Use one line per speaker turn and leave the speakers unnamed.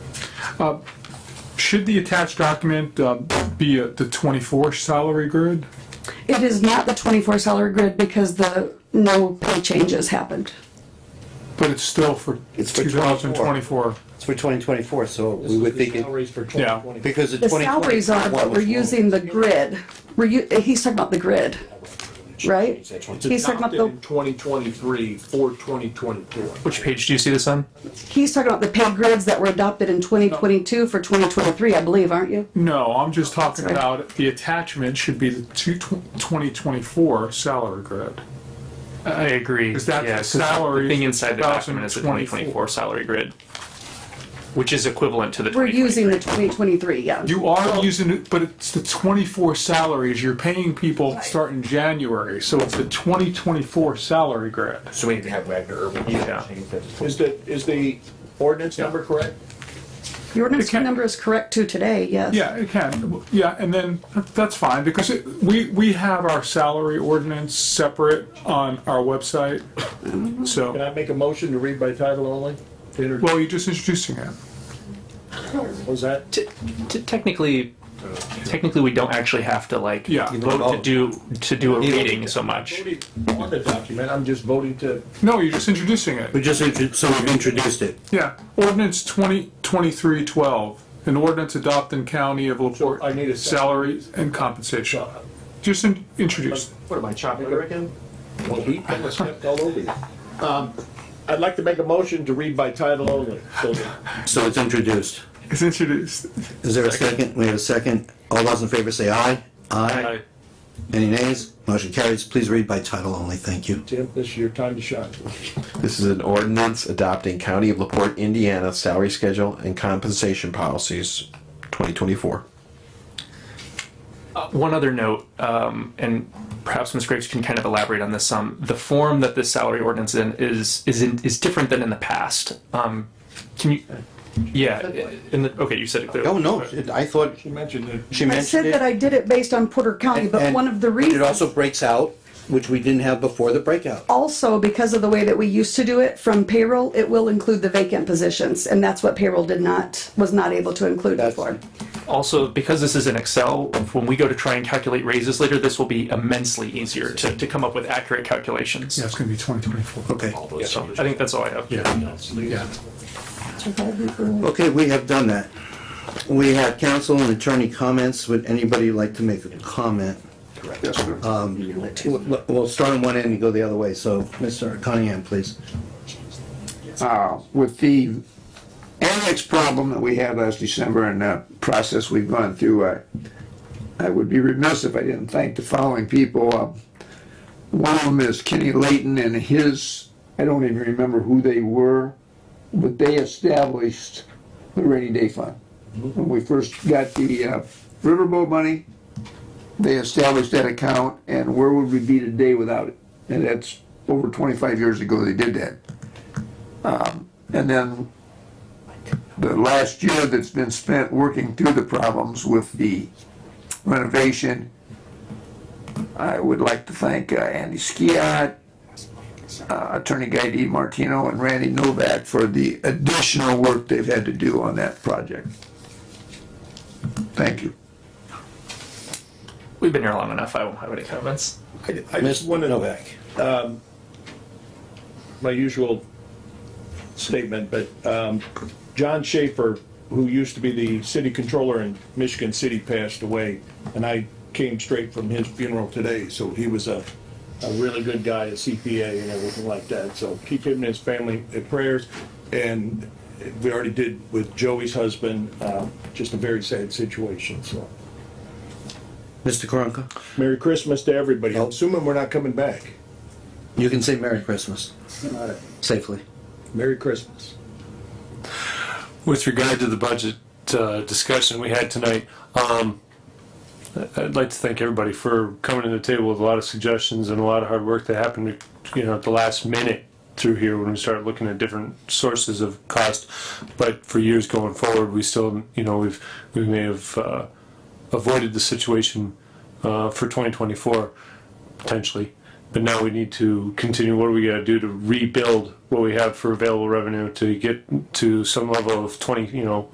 Uh, Should the attached document uh, be uh, the 24 salary grid?
It is not the twenty-four salary grid because the no pay changes happened.
But it's still for
It's for
2024.
It's for 2024, so we would think, it-
Salaries for
Yeah.
2020.
because the
The salaries are,
2024
but we're
was wrong.
using the grid. We're, u- he's talking about the grid, right? He's talking about
Adopted
the,
in 2023 for 2024.
Which page do you see this on?
he's talking about the pay grids that were adopted in twenty twenty-two for twenty twenty-three, I believe, aren't you?
No, I'm just talking
Sorry.
about the attachment should be the two- 2024 salary grid.
I agree.
Is that
Yeah, 'cause
salaries
The thing inside the document is the
2024
2024 salary grid, which is equivalent to the
We're
2023.
using the twenty twenty-three, yeah.
You are using it, but it's the 24 salaries. You're paying people starting January, so it's the 2024 salary grid.
So we need to have Wagner Urban.
Yeah.
Is the, is the ordinance number correct?
Your ordinance
Okay.
number is correct too today, yes.
Yeah, it can, yeah, and then, that's fine, because it- we, we have our salary ordinance separate on our website,
Can
so,
I make a motion to read by title only? Inter-
well, you're just introducing it.
What was that?
T- t- Technically, technically, we don't actually have to like
Yeah.
vote to do, to do a reading so much.
Voting On the document, I'm just voting to,
No, you're just introducing
We
it,
just, intro- so we've introduced it.
yeah, ordinance twenty, twenty-three, twelve, an ordinance adopting county of LaPorte.
So I need a-
Salary and compensation, just in- introduce,
What am I, chopping it again?
well, he kind of stepped all over you. Um, I'd like to make a motion to read by title only. So
So it's introduced.
it's introduced.
Is there a second? We have a second. All those in favor say aye. Aye. Any nays? Motion carries. Please read by title only. Thank you.
Tim, this is your time to shine.
This is an ordinance adopting County of LaPorte, Indiana salary schedule and compensation policies 2024.
uh, One other note, um, and perhaps Ms. Graves can kind of elaborate on this some. The form that this salary ordinance in is is in, is different than in the past. Um, can you? Yeah. In the, okay, you said it clearly.
Oh, no, it- I thought
You mentioned that.
she
I said
mentioned
that I
it.
did it based on Porter County, but
and-
one of the
but It
reasons
also breaks out, which we didn't have before the breakout.
also because of the way that we used to do it from payroll, it will include the vacant positions, and that's what payroll did not, was not able to include
That's-
before.
Also, because this is in Excel, when we go to try and calculate raises later, this will be immensely easier to, to come up with accurate calculations.
Yeah, it's gonna be twenty twenty-four.
Okay.
So I think that's all I have.
Okay, we have done that. We have counsel and attorney comments. Would anybody like to make a comment?
Uh,
Correct. We'll we'll start on one end and go the other way. So, Mr. Cunningham, please.
with the annex problem that we had last December and the process we've gone through, I, I would be remiss if I didn't thank the following people. Um, One of them is Kenny Layton and his, I don't even remember who they were, but they established the rainy day fund. When we first got the uh, Riverboat money, they established that account, and where would we be today without it? And that's over twenty-five years ago they did that. And then the last year that's been spent working through the problems with the renovation, I would like to thank uh, Andy Skiat, uh, Attorney Guy D. Martino, and Randy Novak for the additional work they've had to do on that project. Thank you.
We've been here long enough. I won't have any comments.
I- I just
Mr.
wanted to
Novak.
my usual statement, but um, John Schaefer, who used to be the city controller in Michigan City, passed away, and I came straight from his funeral today, so he was a, a really good guy, a CPA and everything like that, so keep him and his family in prayers, and we already did with Joey's husband, uh, just a very sad situation, so.
Mr. Karanka,
Merry Christmas to everybody, I'm assuming we're not coming back.
you can say Merry Christmas safely.
Merry Christmas.
with regard to the budget uh, discussion we had tonight, um, I- I'd like to thank everybody for coming to the table with a lot of suggestions and a lot of hard work that happened, you know, at the last minute through here when we started looking at different sources of cost. But for years going forward, we still, you know, we've, we may have uh, avoided the situation uh, for 2024 potentially. But now we need to continue, what do we gotta do to rebuild what we have for available revenue to get to some level of twenty, you know,